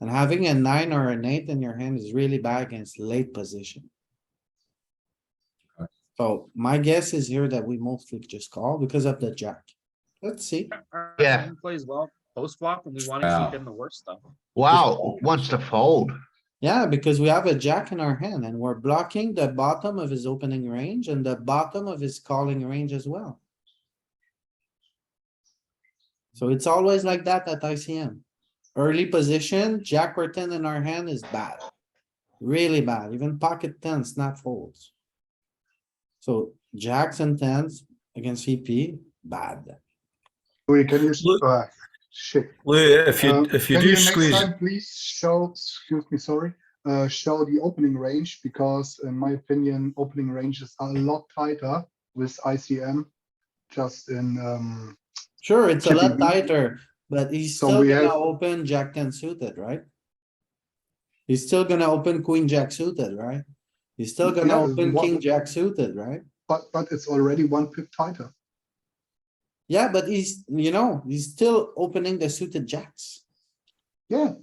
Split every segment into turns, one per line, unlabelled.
And having a nine or an eight in your hand is really bad against late position.
Okay.
So my guess is here that we mostly just call because of the jack. Let's see.
Our
Yeah.
hand Plays well post flop and we want to
Wow.
keep in the worst stuff.
Wow, wants to fold.
Yeah, because we have a jack in our hand and we're blocking the bottom of his opening range and the bottom of his calling range as well. So it's always like that at ICM. Early position, jack or ten in our hand is bad. Really bad, even pocket tens, not folds. So jacks and tens against CP, bad.
Louis, can you, s-
Look-
uh, shit.
Well, if you
Uh,
if you
can
do
next
squeeze,
time Please show, excuse me, sorry, uh, show the opening range because in my opinion, opening ranges are a lot tighter with ICM. Just in, um,
Sure, it's a lot
Chippy V.
tighter, but he's
So
still
we
gonna
have-
open jack ten suited, right? He's still gonna open queen jack suited, right? He's still gonna
Yeah,
open
what-
king jack suited, right?
but, but it's already one pip tighter.
Yeah, but he's, you know, he's still opening the suited jacks.
Yeah.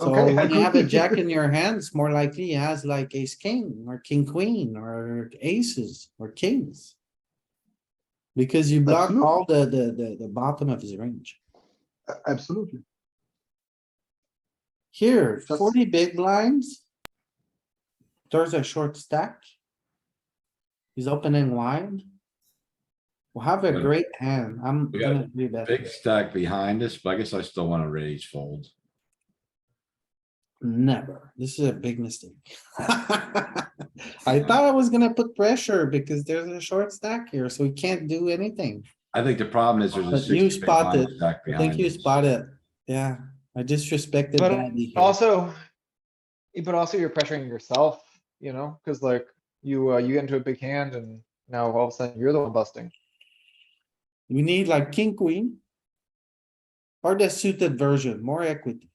So
Okay.
when you have a jack in your hand, it's more likely he has like ace king or king queen or aces or kings. Because you block
Absolutely.
all the, the, the, the bottom of his range.
A- Absolutely.
Here,
That's-
forty big blinds. There's a short stack. He's opening wide. We'll have a
Good.
great hand. I'm
We got
gonna do
Big
that.
stack behind us, but I guess I still wanna raise fold.
Never. This is a big mistake. I thought I was gonna put pressure because there's a short stack here, so we can't do anything.
I think the problem is there's a
But you
sixty big blind
spotted.
stack
I
behind
think you
us.
spot it. Yeah, I disrespected
But
badly here.
Also, but also you're pressuring yourself, you know, cuz like you, uh, you get into a big hand and now all of a sudden you're the one busting.
We need like king, queen. Or the suited version, more equity.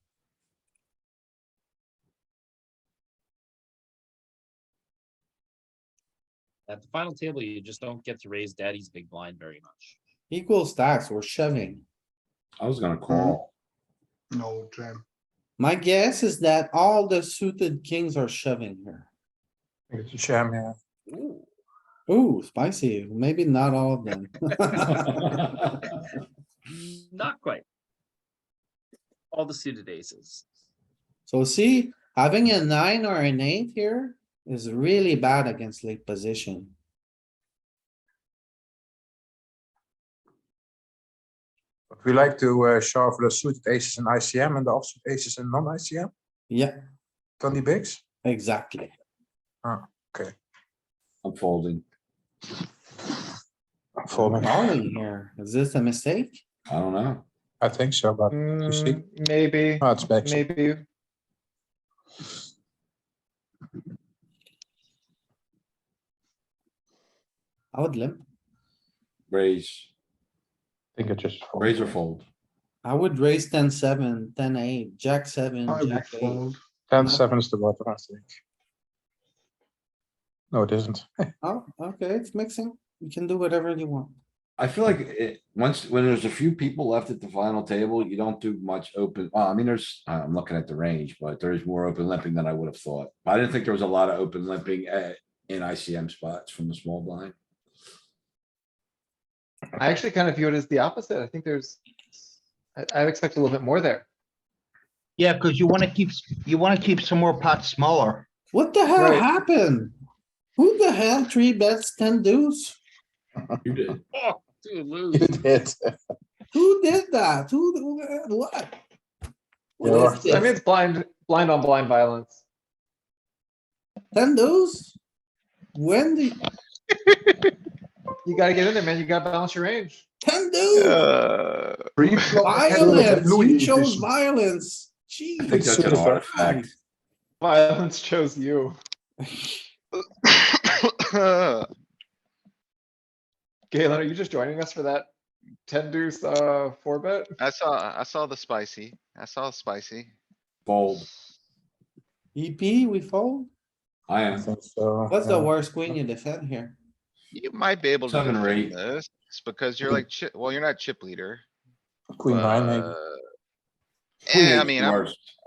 At the final table, you just don't get to raise daddy's big blind very much.
Equal stacks, we're shoving.
I was gonna call.
No jam.
My guess is that all the suited kings are shoving here.
it's a sham, yeah.
Ooh, spicy. Maybe not all of them.
Not quite. All the suited aces.
So see, having a nine or an eight here is really bad against late position.
But we like to uh, shove the suited aces in ICM and the offsuit aces in non-ICM,
Yeah,
twenty bigs.
exactly.
I'm folding.
Folding,
Calling here. Is this a mistake?
I don't know.
I think so, but you see,
Mm, Maybe,
oh, it's back.
maybe.
I would limp.
Raise,
think it just. fold.
raise or fold.
I would raise ten, seven, ten, eight, jack seven,
I would
jack eight.
fold.
Ten seven is the bottom, I think. No, it isn't.
Oh, okay, it's mixing. You can do whatever you want.
I feel like it, once, when there's a few people left at the final table, you don't do much open, well, I mean, there's, uh, I'm looking at the range, but there is more open limping than I would have thought. I didn't think there was a lot of open limping at, in ICM spots from the small blind.
I actually kind of view it as the opposite. I think there's, I, I expect a little bit more there.
Yeah, because you want to keep, you want to keep some more pots smaller.
What the hell
Right.
happened? Who the hell three bets ten deuce?
You did.
Oh, dude, lose.
It is.
Who did that? Who, who- what? What is
Yeah.
I mean,
this?
it's blind, blind on blind violence.
Ten deuce? When the,
You gotta get in there, man. You gotta balance your range.
ten deuce?
Three flop
Violence,
Louis
you chose
edition.
violence.
I think
Jeez.
that's an artifact.
Violence chose you. Galen, are you just joining us for that ten deuce, uh, four bet?
I saw, I saw the spicy. I saw spicy.
Fold.
EP, E we fold?
I
I
am.
think so,
What's the
Uh,
yeah.
worst queen you defend here?
You might be able to
Seven or eight.
defend this, it's because you're
Okay.
like, chi- well, you're not chip leader.
Queen nine, maybe.
but- Eh, I mean, I'm
Worst.